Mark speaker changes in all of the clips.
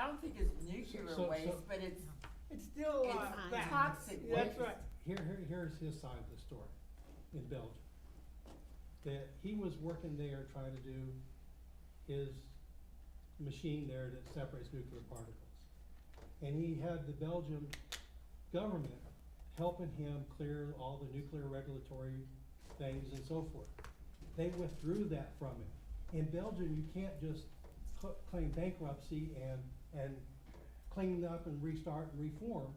Speaker 1: don't think it's nuclear
Speaker 2: so-
Speaker 1: waste,
Speaker 2: so-
Speaker 1: but it's,
Speaker 3: It's still, uh,
Speaker 1: It's
Speaker 3: bad.
Speaker 1: toxic
Speaker 3: That's
Speaker 1: waste.
Speaker 3: right.
Speaker 2: Here, here, here's his side of the story in Belgium. That he was working there trying to do his machine there that separates nuclear particles. And he had the Belgium government helping him clear all the nuclear regulatory things and so forth. They withdrew that from him. In Belgium, you can't just cl- claim bankruptcy and, and clean up and restart and reform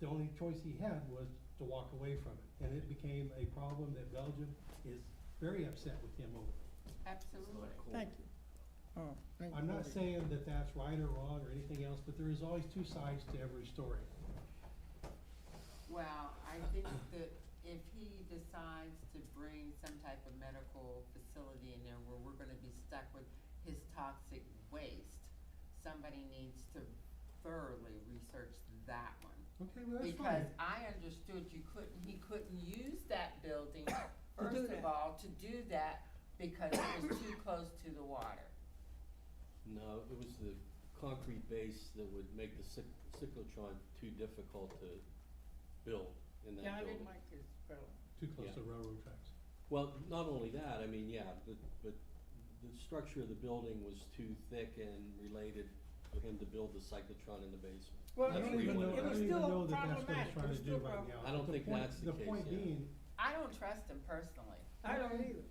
Speaker 2: the only choice he had was to walk away from it. And it became a problem that Belgium is very upset with him over.
Speaker 1: absolutely.
Speaker 4: Thank you. Oh, thank
Speaker 2: I'm
Speaker 4: you.
Speaker 2: not saying that that's right or wrong or anything else, but there is always two sides to every story.
Speaker 1: Well, I think that if he decides to bring some type of medical facility in there where we're gonna be stuck with his toxic waste, somebody needs to thoroughly research that one.
Speaker 2: Okay, well, that's
Speaker 1: Because
Speaker 2: fine.
Speaker 1: I understood you couldn't, he couldn't use that building,
Speaker 3: do
Speaker 1: first of
Speaker 3: that.
Speaker 1: all, to do that because it was too close to the water.
Speaker 5: No, it was the concrete base that would make the cyc- cyclotron too difficult to build in
Speaker 3: Yeah, I
Speaker 5: that
Speaker 3: didn't
Speaker 5: building.
Speaker 3: like this fellow.
Speaker 2: Too close
Speaker 5: yeah.
Speaker 2: to railroad tracks.
Speaker 5: Well, not only that, I mean, yeah, but, but the structure of the building was too thick and related for him to build the cyclotron in the basement.
Speaker 3: Well,
Speaker 2: I
Speaker 3: it
Speaker 5: That's
Speaker 2: don't
Speaker 5: what
Speaker 3: was-
Speaker 5: he
Speaker 2: even know, I
Speaker 5: wanted.
Speaker 3: was
Speaker 2: don't even
Speaker 3: still
Speaker 2: know that that's what he's
Speaker 3: problematic. It
Speaker 2: trying
Speaker 3: was
Speaker 2: to do
Speaker 3: still
Speaker 2: right now.
Speaker 3: problem-
Speaker 5: I don't
Speaker 2: But
Speaker 5: think
Speaker 2: point-
Speaker 5: that's the case,
Speaker 2: point
Speaker 5: yeah.
Speaker 2: being,
Speaker 1: I don't trust him personally,
Speaker 3: I
Speaker 1: Mm-hmm.
Speaker 3: don't either.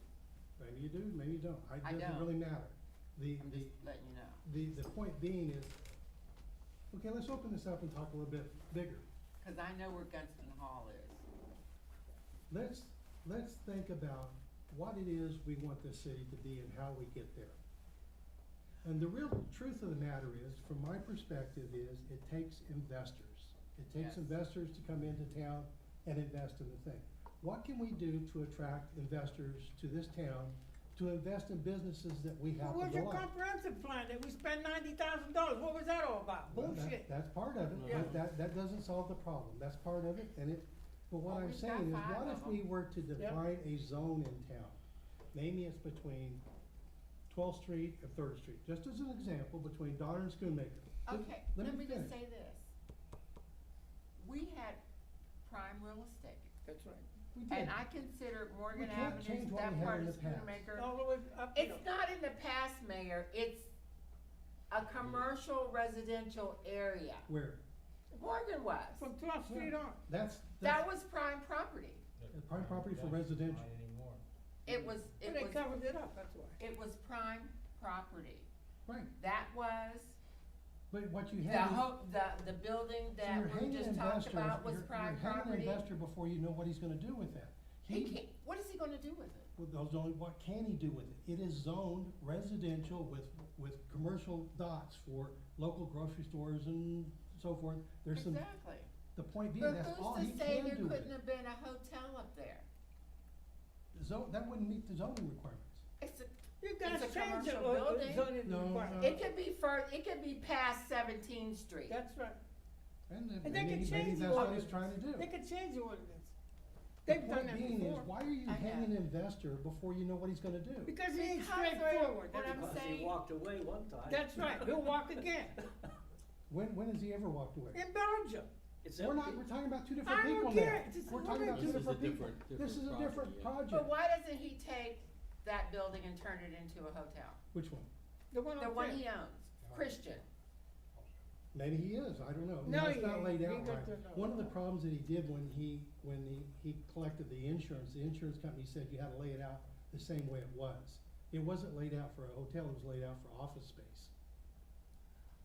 Speaker 2: maybe you do, maybe you don't. I-
Speaker 1: I
Speaker 2: It doesn't
Speaker 1: don't.
Speaker 2: really matter. The,
Speaker 1: I'm
Speaker 2: the,
Speaker 1: just letting you know,
Speaker 2: the, the point being is, okay, let's open this up and talk a little bit bigger.
Speaker 1: cause I know where Gunston Hall is.
Speaker 2: Let's, let's think about what it is we want this city to be and how we get there. And the real truth of the matter is, from my perspective, is it takes investors. It
Speaker 1: Yes.
Speaker 2: takes investors to come into town and invest in the thing. What can we do to attract investors to this town to invest in businesses that we
Speaker 3: What
Speaker 2: happen
Speaker 3: was
Speaker 2: to
Speaker 3: your
Speaker 2: like?
Speaker 3: comprehensive plan that we spent ninety thousand dollars? What was that all about?
Speaker 2: Well, that-
Speaker 3: Bullshit.
Speaker 2: That's part of it,
Speaker 3: Yeah.
Speaker 2: but that, that doesn't solve the problem, that's part of it, and it, but what
Speaker 1: Well,
Speaker 2: I'm
Speaker 1: we've got
Speaker 2: saying is,
Speaker 1: five
Speaker 2: what
Speaker 1: of
Speaker 2: if we were to
Speaker 3: Yep.
Speaker 2: define a zone in town? Maybe it's between twelfth street and Third Street, just as an example, between Donner and Schoonmaker. Let-
Speaker 1: Okay,
Speaker 2: let
Speaker 1: let me
Speaker 2: me
Speaker 1: just
Speaker 2: finish.
Speaker 1: say this. We had prime real estate,
Speaker 3: That's right.
Speaker 2: We did,
Speaker 1: and I consider
Speaker 2: We
Speaker 1: Morgan
Speaker 2: can't
Speaker 1: Avenue,
Speaker 2: change what we
Speaker 1: that
Speaker 2: had
Speaker 1: part
Speaker 2: in
Speaker 1: of
Speaker 2: the past.
Speaker 1: Schoonmaker.
Speaker 3: All the way up here.
Speaker 1: It's not in the past, Mayor, it's a commercial residential area.
Speaker 2: where,
Speaker 1: Morgan was,
Speaker 3: From twelfth street on.
Speaker 2: that's,
Speaker 1: that
Speaker 2: that's
Speaker 1: was prime property.
Speaker 2: a prime property for residential, Mm.
Speaker 1: It was,
Speaker 3: But
Speaker 1: it
Speaker 3: they
Speaker 1: was,
Speaker 3: covered it up, that's why.
Speaker 1: it was prime property.
Speaker 2: right,
Speaker 1: That was,
Speaker 2: but what you
Speaker 1: the
Speaker 2: have is.
Speaker 1: ho, the, the building
Speaker 2: so
Speaker 1: that
Speaker 2: you're
Speaker 1: we
Speaker 2: hanging
Speaker 1: just talked
Speaker 2: investors-
Speaker 1: about was
Speaker 2: you're-
Speaker 1: prime
Speaker 2: You're hanging an
Speaker 1: property.
Speaker 2: investor before you know what he's gonna do with that.
Speaker 1: He can't, what is he gonna do with it?
Speaker 2: Well, those only, what can he do with it? It is zoned residential with, with commercial dots for local grocery stores and so forth. There's some,
Speaker 1: Exactly.
Speaker 2: the point being,
Speaker 1: But
Speaker 2: that's all
Speaker 1: who's
Speaker 2: he
Speaker 1: to say
Speaker 2: can
Speaker 1: there
Speaker 2: do with
Speaker 1: couldn't
Speaker 2: it.
Speaker 1: have been a hotel up there?
Speaker 2: Zone, that wouldn't meet the zoning requirements.
Speaker 1: It's a,
Speaker 2: Uh,
Speaker 3: You guys
Speaker 1: a
Speaker 3: changed the
Speaker 1: commercial
Speaker 3: uh, uh,
Speaker 1: building.
Speaker 3: zoning
Speaker 2: No,
Speaker 3: requirement.
Speaker 2: no.
Speaker 1: it could be fur, it could be past Seventeenth Street.
Speaker 3: That's right.
Speaker 2: And then
Speaker 3: And they
Speaker 2: maybe,
Speaker 3: could
Speaker 2: maybe
Speaker 3: change the
Speaker 2: that's what he's
Speaker 3: ordinance.
Speaker 2: trying to do.
Speaker 3: They could change the ordinance.
Speaker 2: The
Speaker 3: They've done
Speaker 2: point
Speaker 3: that
Speaker 2: being is,
Speaker 3: before.
Speaker 2: why are you
Speaker 1: I
Speaker 2: hanging an
Speaker 1: know.
Speaker 2: investor before you know what he's gonna do?
Speaker 3: Because he ain't
Speaker 1: Because they're-
Speaker 3: straightforward.
Speaker 1: what
Speaker 3: that's
Speaker 1: I'm
Speaker 3: why.
Speaker 1: saying-
Speaker 6: He walked away one time.
Speaker 3: That's right, he'll walk again,
Speaker 2: When, when has he ever walked away?
Speaker 3: in Belgium.
Speaker 6: It's
Speaker 2: We're not,
Speaker 6: empty.
Speaker 2: we're talking about two
Speaker 3: I
Speaker 2: different
Speaker 3: don't
Speaker 2: people now.
Speaker 3: care. It's just
Speaker 2: We're talking about
Speaker 3: outrageous.
Speaker 2: two
Speaker 5: This is a
Speaker 2: different people.
Speaker 5: different-
Speaker 2: This is
Speaker 5: different
Speaker 2: a
Speaker 5: project,
Speaker 2: different
Speaker 5: yeah.
Speaker 2: project.
Speaker 1: But why doesn't he take that building and turn it into a hotel?
Speaker 2: Which one?
Speaker 3: The one
Speaker 1: The
Speaker 3: on
Speaker 1: one
Speaker 3: Fifth.
Speaker 1: he owns, Christian.
Speaker 2: Maybe he is, I don't know,
Speaker 3: No,
Speaker 2: no, it's
Speaker 3: he
Speaker 2: not
Speaker 3: ain't.
Speaker 2: laid
Speaker 3: He
Speaker 2: out
Speaker 3: got
Speaker 2: right.
Speaker 3: the-
Speaker 2: One of the problems that he did when he, when he, he collected the insurance, the insurance company said you had to lay it out the same way it was. It wasn't laid out for a hotel, it was laid out for office space.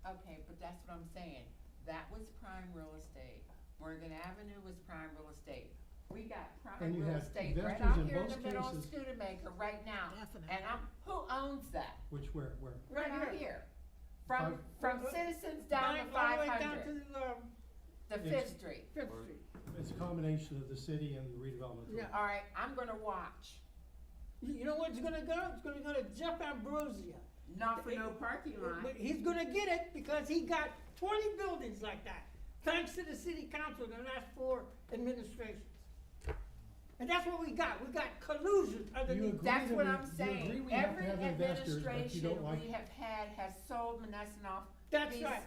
Speaker 1: Okay, but that's what I'm saying. That was prime real estate. Morgan Avenue was prime real estate. We got prime
Speaker 2: And you
Speaker 1: real
Speaker 2: had
Speaker 1: estate right
Speaker 2: investors
Speaker 1: out
Speaker 2: in
Speaker 1: here in the
Speaker 2: both
Speaker 1: middle of
Speaker 2: cases.
Speaker 1: Studebaker right now.
Speaker 4: Definitely.
Speaker 1: And I'm, who owns that?
Speaker 2: Which where, where,
Speaker 1: Right out here. From,
Speaker 2: Five-
Speaker 1: from
Speaker 3: Uh, uh,
Speaker 1: Citizens down to
Speaker 3: Bank all
Speaker 1: five
Speaker 3: the way down
Speaker 1: hundred,
Speaker 3: to, um,
Speaker 1: the Fifth Street.
Speaker 3: Fifth
Speaker 5: Or-
Speaker 3: Street.
Speaker 2: it's a combination of the city and the redevelopment. authority.
Speaker 3: Yeah.
Speaker 1: All right, I'm gonna watch.
Speaker 3: You, you know where it's gonna go? It's gonna go to Jeff Ambrosia.
Speaker 1: Not for no parking
Speaker 3: But
Speaker 1: lot.
Speaker 3: he's gonna get it because he got twenty buildings like that, thanks to the city council in the last four administrations. And that's what we got, we got collusion
Speaker 2: You
Speaker 3: underneath.
Speaker 2: agree
Speaker 1: That's
Speaker 2: that
Speaker 1: what
Speaker 2: we-
Speaker 1: I'm
Speaker 2: you agree
Speaker 1: saying.
Speaker 2: we have to
Speaker 1: Every
Speaker 2: have investors, but you
Speaker 1: administration
Speaker 2: don't like-
Speaker 1: we have had has sold Menneson off
Speaker 3: That's
Speaker 1: These-
Speaker 3: right.